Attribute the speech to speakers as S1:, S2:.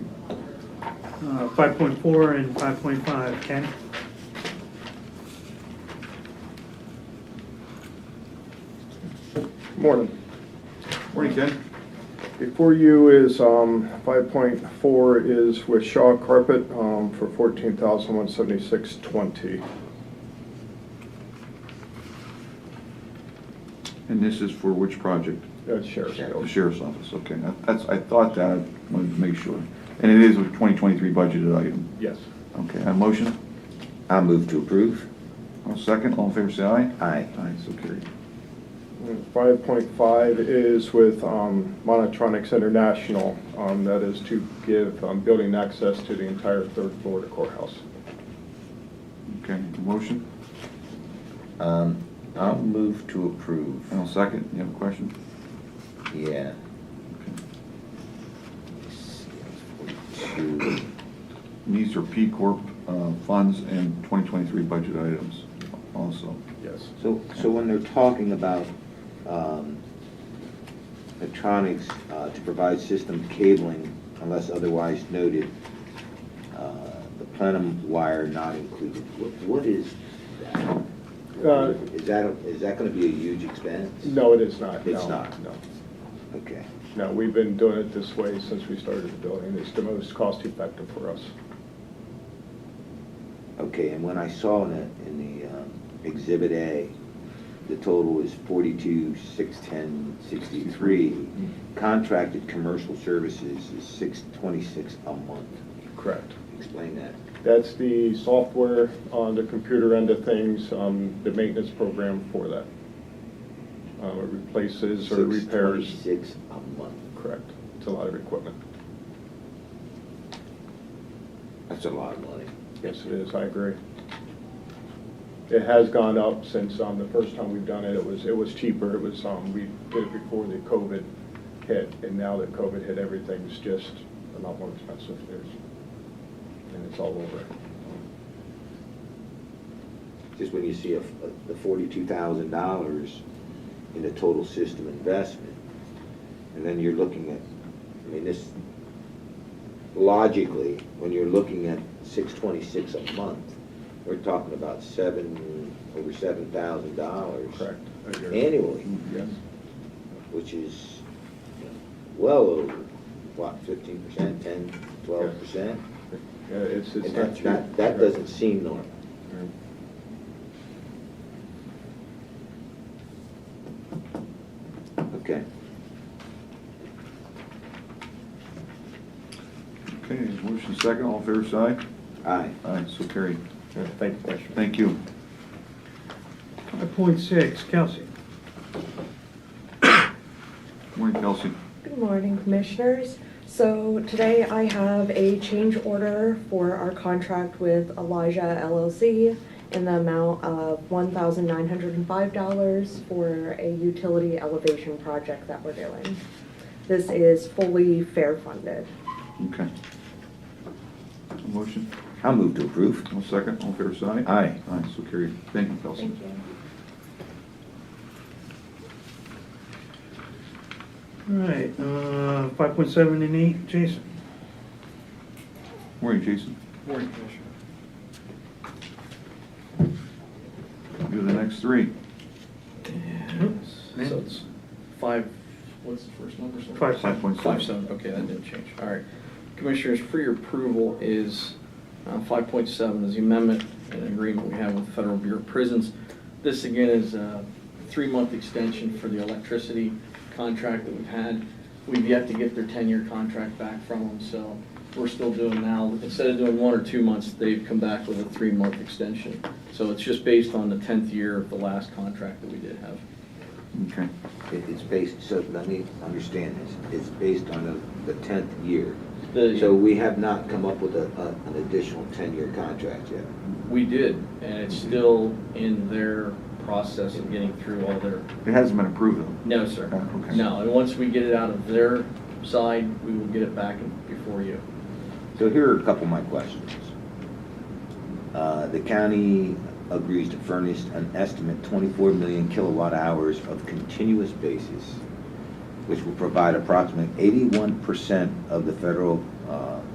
S1: uh, 5.4 and 5.5. Ken?
S2: Morning.
S3: Morning, Ken.
S2: Before you is, um, five point four is with Shaw Carpet, um, for fourteen thousand one seventy-six twenty.
S3: And this is for which project?
S2: That's sheriff's.
S3: The
S2: bill.
S3: sheriff's office, okay. That- That's, I thought that, I wanted to make sure. And it is a 2023 budgeted item.
S2: Yes.
S3: Okay, a motion?
S4: I'll move to approve.
S3: I'll second, all in favor, say aye.
S4: Aye.
S3: Aye, so carried.
S2: Five point five is with, um, Monotronics International, um, that is to give, um, building access to the entire third floor to courthouse.
S3: Okay, a motion,
S4: Um, I'll move to approve.
S3: and I'll second. You have a question?
S4: Yeah.
S3: Okay.
S4: Two.
S3: And These are P Corp uh, funds and 2023 budget items also.
S2: Yes.
S4: So, so when they're talking about um, electronics uh, to provide system cabling unless otherwise noted, uh, the plenum wire not included, Wh- what is that?
S2: Uh,
S4: Is that, a- is that gonna be a huge expense?
S2: No, it is not.
S4: It's
S2: No,
S4: not.
S2: No.
S4: Okay,
S2: No, we've been doing it this way since we started the building. It's the most cost-effective for us.
S4: okay, and when I saw in the, in the um, exhibit A, the total is forty-two, six, ten, sixty-three. Contracted commercial services is six, twenty-six a month.
S2: Correct.
S4: Explain that.
S2: That's the software on the computer end of things, um, the maintenance program for that. Uh, It replaces or repairs,
S4: Six a month.
S2: correct. It's a lot of equipment.
S4: That's a lot of money.
S2: Yes, it is, I agree. It has gone up since um, the first time we've done it, it was, it was cheaper. It was, um, we did it before the COVID hit, and now that COVID hit, everything's just a lot more expensive. There's, and it's all over. Um,
S4: Just when you see a, a- the forty-two thousand dollars in the total system investment, and then you're looking at, I mean, this, logically, when you're looking at six twenty-six a month, we're talking about seven, over seven thousand dollars.
S2: Correct. I agree.
S4: Annually,
S2: Yes,
S4: which is you know, well over, what, fifteen percent, ten, twelve percent?
S2: Yeah, it's, it's
S4: And
S2: not
S4: that,
S2: cheap.
S4: that, that doesn't seem normal. Okay.
S3: Okay, motion second, all in favor, say aye.
S4: Aye.
S3: Aye, so carried.
S2: Yeah, Thank you, Commissioner.
S3: Thank you.
S1: 5.6, Kelsey.
S3: Morning, Kelsey.
S5: Good morning, Commissioners. So today I have a change order for our contract with Elijah LLC in the amount of $1,905 for a utility elevation project that we're doing. This is fully fair funded.
S3: Okay. A Motion,
S4: I'll move to approve.
S3: I'll second, all in favor, say aye.
S4: Aye.
S3: Aye, so carried. Thank you, Kelsey.
S5: you.
S1: All right, uh, 5.7 and 8, Jason.
S3: Morning, Jason.
S2: Morning, Commissioner.
S3: Do the next three.
S6: So it's five, what's the first number? sorry?
S1: Five
S3: Five point
S6: Five
S3: seven.
S6: seven, okay, that didn't change, all right. Commissioners, for your approval is uh, five point seven is the amendment and agreement we have with the Federal Bureau of Prisons. This again is a three-month extension for the electricity contract that we've had. We've yet to get their ten-year contract back from them, so we're still doing now, instead of doing one or two months, they've come back with a three-month extension. So it's just based on the tenth year of the last contract that we did have.
S3: Okay,
S4: It- It's based, so let me understand this. It's based on the tenth year.
S6: The-
S4: So we have not come up with a, a- an additional ten-year contract yet.
S6: We did, and it's still in their process of getting through all their,
S3: it hasn't been approved though.
S6: no, sir.
S3: Oh, okay.
S6: No, and once we get it out of their side, we will get it back in- before you.
S4: So here are a couple of my questions. Uh, The county agrees to furnish an estimate 24 million kilowatt hours of continuous basis, which will provide approximately 81% of the federal uh,